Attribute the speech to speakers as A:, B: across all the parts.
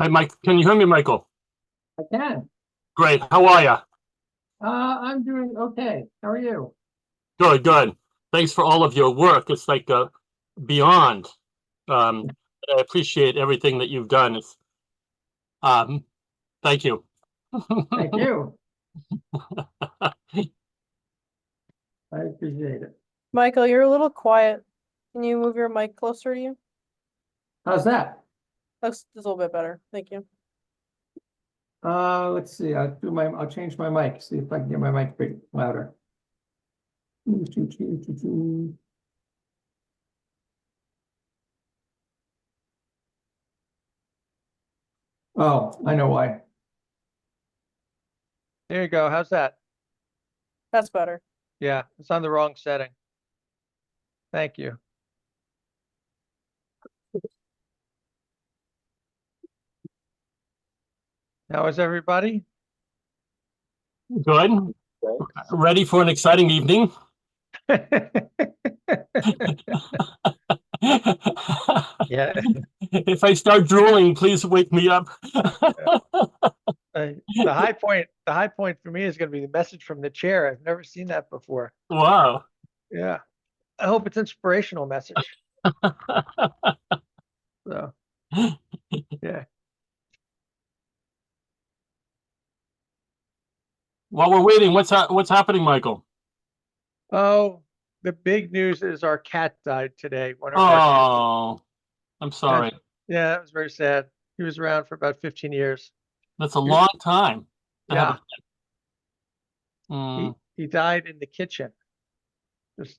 A: Hi, Mike. Can you hear me, Michael?
B: I can.
A: Great. How are you?
B: Uh, I'm doing okay. How are you?
A: Good, good. Thanks for all of your work. It's like uh, beyond. Um, I appreciate everything that you've done. It's, um, thank you.
B: Thank you. I appreciate it.
C: Michael, you're a little quiet. Can you move your mic closer to you?
B: How's that?
C: That's that's a little bit better. Thank you.
B: Uh, let's see, I'll do my, I'll change my mic, see if I can get my mic big louder. There Oh, I know why.
D: There you go. How's that?
C: That's better.
D: Yeah, it's on the wrong setting. Thank you. How is everybody?
A: Good. Ready for an exciting evening?
D: Yeah.
A: If I start drooling, please wake me up.
D: Uh, The high point, the high point for me is gonna be the message from the chair. I've never seen that before.
A: Wow.
D: Yeah. I hope it's inspirational message. So, yeah,
A: While we're waiting, what's, hap- what's happening, Michael?
D: oh, the big news is our cat died today. One of our cats.
A: Oh, I'm sorry.
D: Yeah, it was very sad. He was around for about 15 years.
A: That's a long time. to have
D: Yeah,
A: a- Mm,
D: he died in the kitchen. Just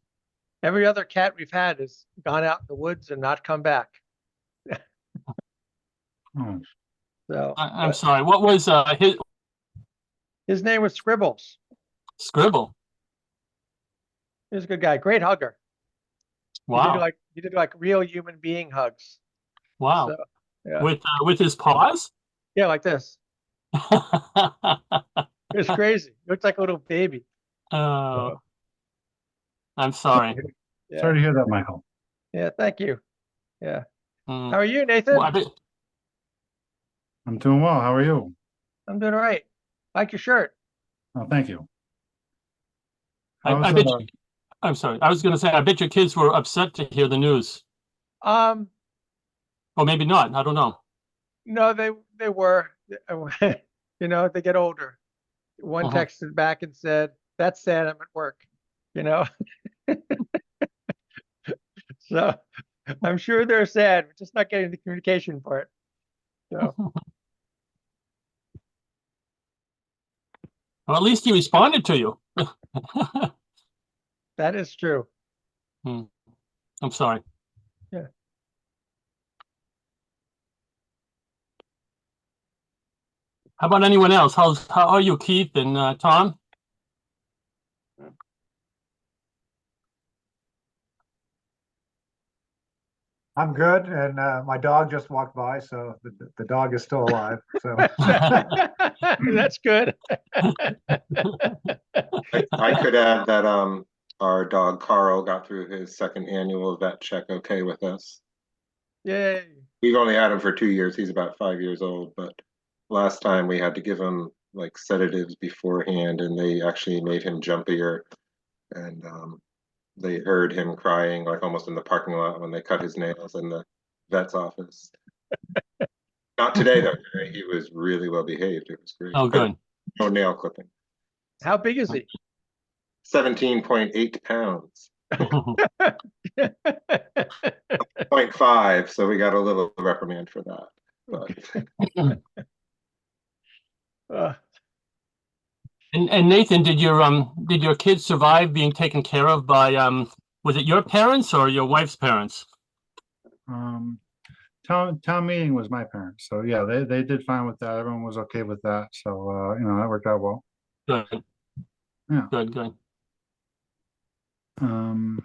D: every other cat we've had has gone out in the woods and not come back.
E: Hmm.
D: So
A: I, I'm
D: but
A: sorry. What was uh, his
D: his name was Scribbles.
A: scribble?
D: He was a good guy, great hugger. He did
A: Wow,
D: like he did like real human being hugs.
A: wow.
D: So, yeah.
A: With uh, with his paws.
D: yeah, like this. It was crazy. He looked like a little baby.
A: oh, I'm sorry.
D: Yeah.
E: Sorry to hear that, Michael.
D: Yeah, thank you.
A: Mm.
D: How are you, Nathan?
A: Well, I bet-
E: I'm doing well. How are you?
D: I'm doing all right. Like your shirt.
E: Oh, thank you.
A: I-
E: How's,
A: I bet
E: uh,
A: you- I'm sorry. I was going to say I bet your kids were upset to hear the news,
D: Um,
A: or maybe not. I don't know.
D: No, they they were. oh, You know, they get older. One
A: Uh-huh.
D: texted back and said, "That's sad. I'm at work." You know. so, I'm sure they're sad. We're just not getting the communication part. So,
A: Well, at least he responded to you.
D: that is true.
A: I'm sorry. How about anyone else? How's how are you, Keith and uh, Tom?
F: I'm good, and uh, my dog just walked by, so the, the dog is still alive. So
D: That's good.
G: I- I could add that um, our dog Carl got through his second annual vet check okay with us.
D: Yay.
G: We've only had him for two years. He's about five years old, but last time we had to give him like sedatives beforehand and they actually made him jumpier. And um, they heard him crying like almost in the parking lot when they cut his nails in the vet's office. Not today though. Today He was really well behaved. It was great.
A: Oh,
G: But
A: good.
G: No nail clipping.
D: How big is he?
G: Seventeen point eight pounds.
D: That's
G: point five, so we got a little reprimand for that. But
A: And, and Nathan, did your um did your kids survive being taken care of by um was it your parents or your wife's parents?
E: um, town, town meeting was my parents. So yeah, they, they did fine with that. Everyone was okay with that. So, uh, you know, that worked out well.
A: Good.
E: Yeah.
A: Good, good.
E: Um,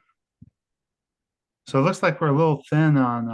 E: so it looks like we're a little thin on,